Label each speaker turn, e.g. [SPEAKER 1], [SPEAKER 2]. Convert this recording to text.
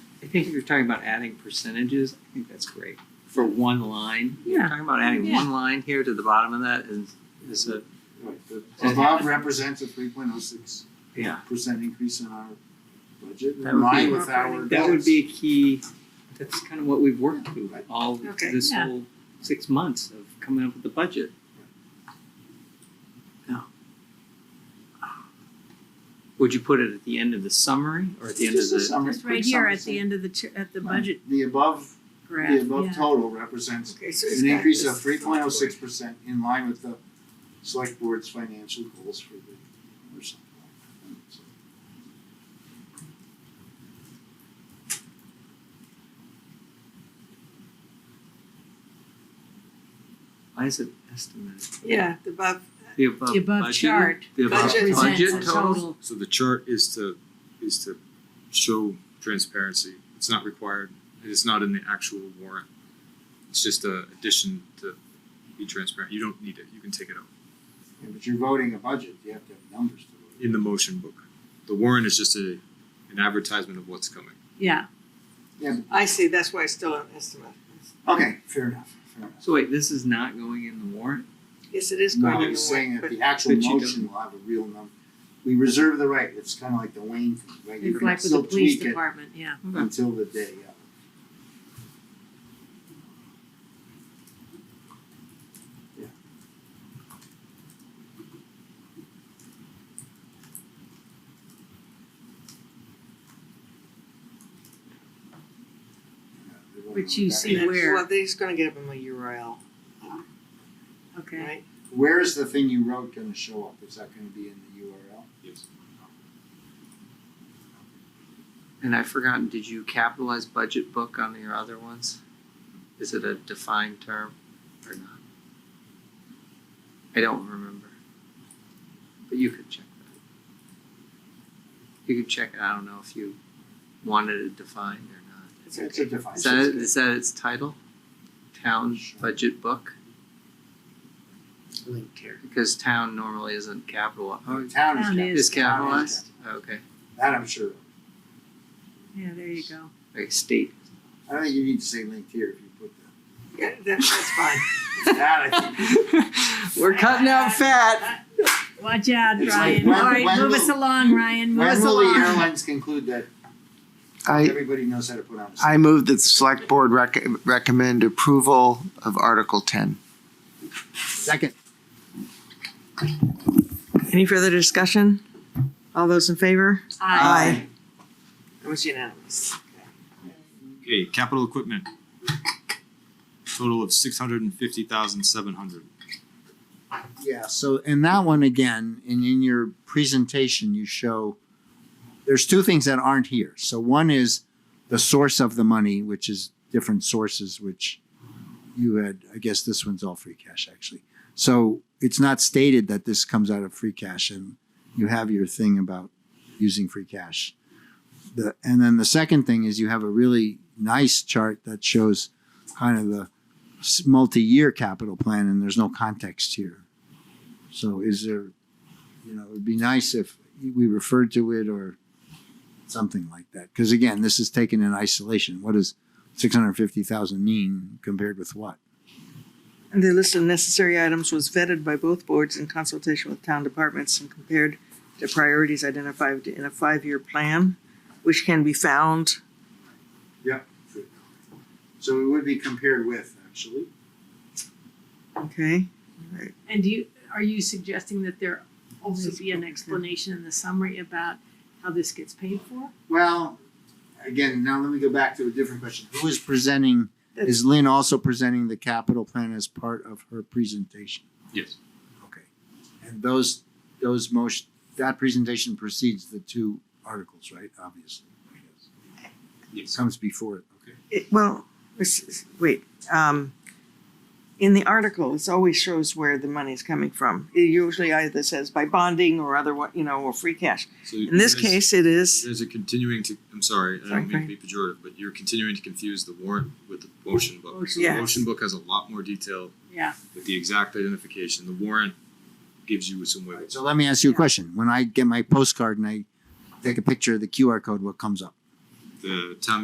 [SPEAKER 1] I think if you're talking about adding percentages, I think that's great for one line. If You're
[SPEAKER 2] Yeah.
[SPEAKER 1] talking about adding
[SPEAKER 2] Yeah.
[SPEAKER 1] one line here to the bottom of that is is a
[SPEAKER 3] Right, the
[SPEAKER 1] Just
[SPEAKER 3] above represents a three point oh six
[SPEAKER 1] yeah.
[SPEAKER 3] percent increase in our budget,
[SPEAKER 1] That
[SPEAKER 3] in
[SPEAKER 1] would
[SPEAKER 3] line
[SPEAKER 1] be-
[SPEAKER 3] with our.
[SPEAKER 1] That would
[SPEAKER 3] goals.
[SPEAKER 1] be a key. That's kind of what we've worked through all
[SPEAKER 4] Okay.
[SPEAKER 1] this
[SPEAKER 2] Yeah.
[SPEAKER 1] whole six months of coming up with the budget. Now, would you put it at the end of the summary or at the end of
[SPEAKER 3] Just a
[SPEAKER 1] the?
[SPEAKER 3] summary,
[SPEAKER 2] Just
[SPEAKER 3] quick
[SPEAKER 2] right here at
[SPEAKER 3] summary.
[SPEAKER 2] the end of the, ch- at the budget
[SPEAKER 3] The above, the
[SPEAKER 2] graph,
[SPEAKER 3] above
[SPEAKER 2] yeah.
[SPEAKER 3] total represents
[SPEAKER 4] Okay, so it's
[SPEAKER 3] an
[SPEAKER 4] got
[SPEAKER 3] increase
[SPEAKER 4] this
[SPEAKER 3] of three point oh six percent in line with the select board's financial goals for the, or something like that. So,
[SPEAKER 1] Why is it estimated?
[SPEAKER 4] Yeah, the above
[SPEAKER 1] The above
[SPEAKER 2] The above
[SPEAKER 1] budgeted?
[SPEAKER 2] chart.
[SPEAKER 1] The above
[SPEAKER 4] Budget
[SPEAKER 1] budget
[SPEAKER 4] presents a
[SPEAKER 1] total?
[SPEAKER 5] So the chart is to, is to show transparency. It's not required. It is not in the actual warrant. It's just a addition to be transparent. You don't need it. You can take it out.
[SPEAKER 3] yeah, but you're voting a budget, you have to have numbers to vote.
[SPEAKER 5] In the motion book. The warrant is just a, an advertisement of what's coming.
[SPEAKER 2] Yeah,
[SPEAKER 4] I see, that's why it's still an estimate.
[SPEAKER 3] Okay, fair enough, fair enough.
[SPEAKER 1] So wait, this is not going in the warrant?
[SPEAKER 4] Yes, it is going
[SPEAKER 3] No,
[SPEAKER 4] in the
[SPEAKER 3] I'm saying
[SPEAKER 4] warrant,
[SPEAKER 3] that
[SPEAKER 4] but
[SPEAKER 3] the actual
[SPEAKER 1] But you
[SPEAKER 3] motion will have a real number. We reserve the right, it's kinda like the Wayne thing, right? You
[SPEAKER 2] it's
[SPEAKER 3] can
[SPEAKER 2] like with the
[SPEAKER 3] still
[SPEAKER 2] police
[SPEAKER 3] tweak it
[SPEAKER 2] department, yeah.
[SPEAKER 3] Until the day, yeah. Yeah, they won't
[SPEAKER 2] Which
[SPEAKER 3] look
[SPEAKER 2] you
[SPEAKER 3] back.
[SPEAKER 2] see
[SPEAKER 4] and-
[SPEAKER 2] where-
[SPEAKER 4] Well, they're just gonna give them a URL,
[SPEAKER 2] Okay,
[SPEAKER 4] right?
[SPEAKER 3] Where is the thing you wrote gonna show up? Is that gonna be in the URL?
[SPEAKER 5] Yes.
[SPEAKER 1] And I've forgotten, did you capitalize budget book on your other ones? Is it a defined term or not? I don't remember. But you could check that. You could check, I don't know if you wanted it defined or not.
[SPEAKER 4] It's
[SPEAKER 3] It's
[SPEAKER 4] okay.
[SPEAKER 3] a device.
[SPEAKER 1] Is that, is that its title? Town budget book?
[SPEAKER 4] Linked here.
[SPEAKER 1] Because town normally isn't capitalized.
[SPEAKER 3] Oh, Town is capital.
[SPEAKER 2] Town is
[SPEAKER 1] Is
[SPEAKER 3] Town
[SPEAKER 1] capitalized?
[SPEAKER 3] is
[SPEAKER 1] Okay,
[SPEAKER 3] That I'm sure of.
[SPEAKER 2] yeah, there you go.
[SPEAKER 1] like state.
[SPEAKER 3] I don't think you need to say linked here if you put that.
[SPEAKER 4] Yeah, that, that's fine.
[SPEAKER 3] That I think.
[SPEAKER 1] We're cutting out fat.
[SPEAKER 2] Watch out,
[SPEAKER 3] It's like
[SPEAKER 2] Ryan,
[SPEAKER 3] when-
[SPEAKER 2] all right,
[SPEAKER 3] when
[SPEAKER 2] move
[SPEAKER 3] will-
[SPEAKER 2] us along, Ryan, move
[SPEAKER 3] When
[SPEAKER 2] us
[SPEAKER 3] will the
[SPEAKER 2] along.
[SPEAKER 3] airlines conclude that
[SPEAKER 6] I,
[SPEAKER 3] everybody knows how to put on a
[SPEAKER 6] I move that the select board rec- recommend approval of Article ten. Second.
[SPEAKER 4] Any further discussion? All those in favor?
[SPEAKER 2] Aye.
[SPEAKER 4] It was unanimous.
[SPEAKER 5] Okay, capital equipment. Total of six hundred and fifty thousand seven hundred.
[SPEAKER 3] Yeah, so in that one again, and in your presentation, you show, there's two things that aren't here. So one is the source of the money, which is different sources, which you had, I guess this one's all free cash actually. So it's not stated that this comes out of free cash and you have your thing about using free cash. The, and then the second thing is you have a really nice chart that shows kind of the s- multi-year capital plan and there's no context here. So is there, you know, it'd be nice if we referred to it or something like that. Because again, this is taken in isolation. What does six hundred fifty thousand mean compared with what?
[SPEAKER 4] The list of necessary items was vetted by both boards in consultation with town departments and compared to priorities identified in a five-year plan, which can be found.
[SPEAKER 3] So it would be compared with actually.
[SPEAKER 4] Okay.
[SPEAKER 2] And do you, are you suggesting that there also be an explanation in the summary about how this gets paid for?
[SPEAKER 3] Well, again, now let me go back to a different question. Who is presenting? Is Lynn also presenting the capital plan as part of her presentation?
[SPEAKER 5] Yes.
[SPEAKER 3] Okay. And those those most that presentation precedes the two articles, right? Obviously. I guess.
[SPEAKER 5] Yes.
[SPEAKER 3] comes before it. Okay.
[SPEAKER 4] It, well, this is, wait, um, in the article, it always shows where the money's coming from. It usually either says by bonding or other, you know, or free cash.
[SPEAKER 5] So
[SPEAKER 4] In this
[SPEAKER 5] there's-
[SPEAKER 4] case, it is,
[SPEAKER 5] There's a continuing to, I'm sorry, I don't mean
[SPEAKER 4] Okay.
[SPEAKER 5] to be pejorative, but you're continuing to confuse the warrant with the motion book. So
[SPEAKER 4] Yes.
[SPEAKER 5] The motion book has a lot more detail
[SPEAKER 2] Yeah.
[SPEAKER 5] with the exact identification. The warrant gives you some
[SPEAKER 3] All
[SPEAKER 5] way.
[SPEAKER 3] right, so let me ask you a question. When I get my postcard and I take a picture of the QR code, what comes up?
[SPEAKER 5] The town